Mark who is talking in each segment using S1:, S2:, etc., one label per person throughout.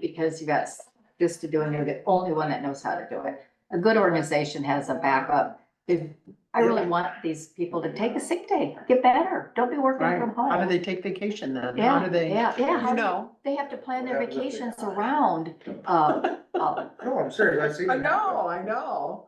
S1: because you got this to do and you're the only one that knows how to do it. A good organization has a backup. If, I really want these people to take a sick day, get better, don't be working
S2: Right,
S1: from
S2: how do
S1: home.
S2: they take vacation then? How
S1: Yeah,
S2: do they,
S1: yeah,
S2: you
S1: yeah.
S2: know?
S1: They have to plan their
S3: What happens if they-
S1: vacations around, uh, uh,
S3: No, I'm serious, I've seen.
S2: I
S3: it
S2: know, I know.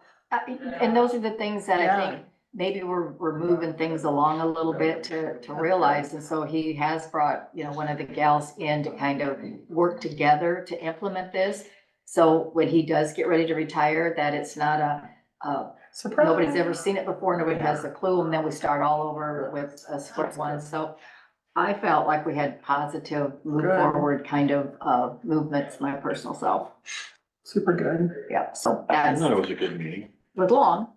S1: and those are the things that I
S2: Yeah.
S1: think, maybe we're, we're moving things along a little bit to, to realize. And so he has brought, you know, one of the gals in to kind of work together to implement this. So when he does get ready to retire, that it's not a, a
S2: Surprise.
S1: nobody's ever seen it before, nobody has a clue, and then we start all over with a split one, so. I felt like we had positive, move
S2: Good.
S1: forward kind of, uh, movements, my personal self,
S2: Super good.
S1: yeah, so
S4: I
S1: that's,
S4: thought it was a good meeting.
S1: was long,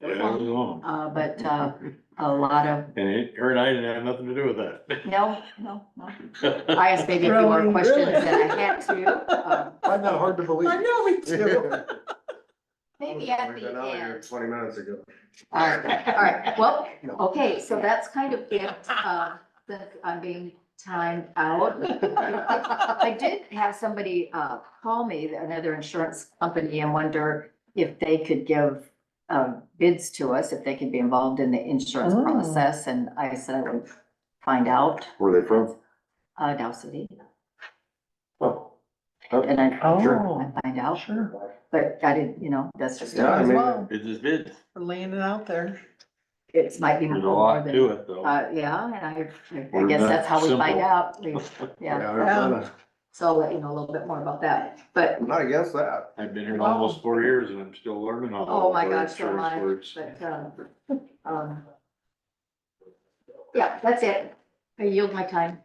S4: Yeah, it was long.
S1: uh, but, uh, a lot of,
S4: And it- her and I didn't have nothing to do with that.
S1: no, no, no. I asked maybe a few
S2: Really,
S1: more questions
S2: really?
S1: than I had to, um,
S3: Find that hard to believe.
S2: I know we do.
S1: maybe at
S3: We've
S1: the
S3: been out here
S1: end.
S3: Twenty minutes ago.
S1: All right, all right, well,
S3: No.
S1: Okay, so that's kind of it, uh, since I'm being timed out. I did have somebody, uh, call me, another insurance company, and wonder if they could give, um, bids to us, if they could be involved in the insurance
S2: Oh.
S1: process, and I said I would find out,
S4: Where are they from?
S1: uh, Dow City,
S4: Oh,
S1: and I,
S2: Oh,
S1: I find out,
S2: sure.
S1: but I didn't, you know, that's just,
S3: Yeah, I
S2: As
S3: mean,
S2: well,
S4: it just did.
S2: we're laying it out there.
S1: it might be
S4: There's a
S1: more
S4: lot
S1: than,
S4: to it though.
S1: uh, yeah, and I, I
S4: We're
S1: guess
S4: not
S1: that's how we find
S4: simple.
S1: out, We- yeah.
S3: Yeah, I'm not-
S1: So I'll let you know a little bit more about that, but,
S3: I'm Not against that.
S4: I've been here almost four years and I'm still learning all.
S1: oh my
S4: the
S1: gosh, so
S4: insurance
S1: much,
S4: words.
S1: but, um, um. Yeah, that's it. I yield my time,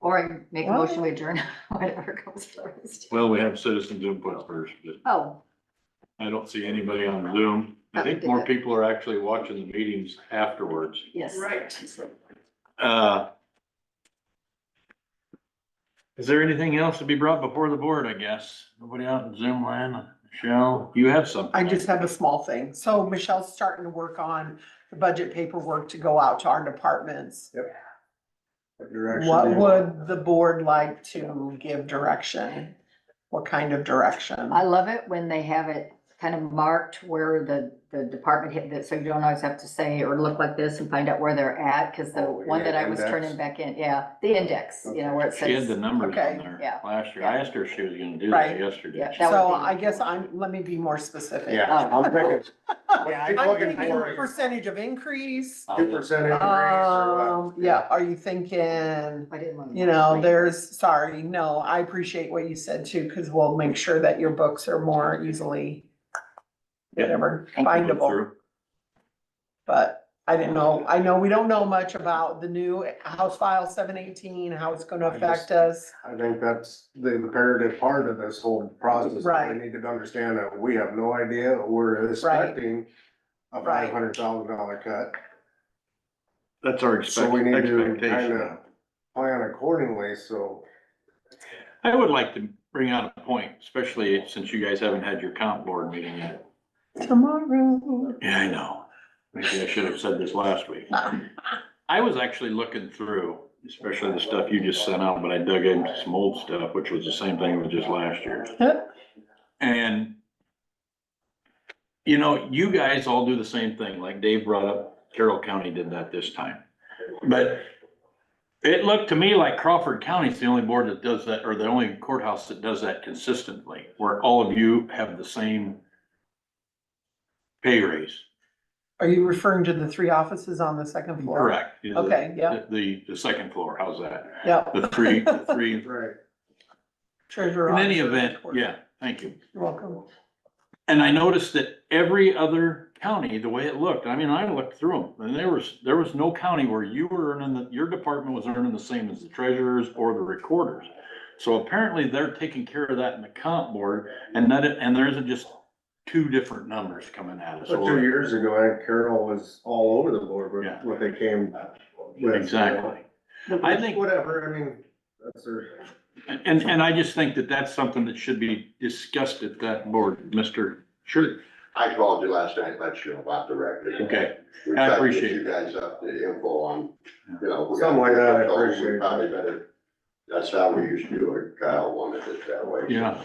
S1: or I make a motion to adjourn, whatever comes first.
S4: Well, we have citizens input first, but
S1: Oh,
S4: I don't see anybody on Zoom. I think more people are actually watching the meetings afterwards.
S1: yes.
S4: Uh. Is there anything else to be brought before the board, I guess? Nobody out in Zoom land? Michelle, you have something?
S2: I just have a small thing. So Michelle's starting to work on the budget paperwork to go out to our departments.
S3: What direction do
S2: What
S3: you-
S2: would the board like to give direction? What kind of direction?
S1: I love it when they have it kind of marked where the, the department hit that, so you don't always have to say or look like this and find out where they're at, cause the
S3: Oh,
S1: one that I was
S3: index.
S1: turning back in, yeah, the index, you know, where it says.
S4: She had the numbers
S2: Okay,
S4: on there
S1: yeah.
S4: last year. I asked her if she was gonna do
S2: Right.
S4: that yesterday.
S1: Yeah,
S4: She
S1: that would
S2: So
S1: be-
S2: I guess I'm, let me be more specific.
S3: Yeah, I'm thinking.
S4: Yeah,
S3: Keep
S2: I'm
S3: looking
S2: thinking
S3: for it.
S2: percentage of increase.
S4: said,
S3: Two percent increase or
S2: Um,
S3: what?
S2: yeah, are you thinking,
S1: I didn't want to.
S2: you know, there's, sorry, no, I appreciate what you said too, cause we'll make sure that your books are more easily.
S4: Yeah.
S2: Whatever,
S4: "I'll go
S2: findable,
S4: through."
S2: but I didn't know, I know we don't know much about the new House File seven eighteen, how it's gonna
S3: I just-
S2: affect us.
S3: I think that's the imperative part of this whole process.
S2: Right.
S3: We need to understand that we have no idea, we're expecting a
S2: Right.
S3: five hundred thousand dollar cut.
S4: That's our
S3: So we
S4: expect-
S3: need to kind
S4: expectation.
S3: of plan accordingly, so.
S4: I would like to bring out a point, especially since you guys haven't had your comp board meeting yet.
S2: Tomorrow.
S4: Yeah, I know. Maybe I should have said this last week. I was actually looking through, especially the stuff you just sent out, but I dug into some old stuff, which was the same thing with just last year. And you know, you guys all do the same thing, like Dave brought up, Carroll County did that this time. But it looked to me like Crawford County's the only board that does that, or the only courthouse that does that consistently, where all of you have the same pay raise.
S2: Are you referring to the three offices on the second floor?
S4: Correct. You know, the-
S2: Okay, yeah,
S4: The, the second floor, how's that?
S2: yeah.
S4: The three, the three,
S3: Right.
S2: Treasurer.
S4: in any
S2: officer,
S4: event,
S2: of course.
S4: yeah, thank you.
S2: You're welcome.
S4: And I noticed that every other county, the way it looked, I mean, I looked through them, and there was, there was no county where you were earning, the your department was earning the same as the treasurers or the recorders. So apparently they're taking care of that in the comp board, and that, and there isn't just two different numbers coming at us.
S3: But Oh, two years ago, I think Carol was all over the board
S4: Yeah.
S3: with what they came with.
S4: Exactly. I think-
S3: Whatever, I mean, that's their,
S4: And, and I just think that that's something that should be discussed at that board, Mr. Sure.
S5: I called you last night, let you know about the record.
S4: Okay,
S5: We
S4: I
S5: tried to get
S4: appreciate it.
S5: You guys up the info on, you know. we got-
S3: Something like that, I
S5: we
S3: appreciate it.
S5: Probably better That's how we used to do it. Kyle wanted it that way.
S4: Yeah.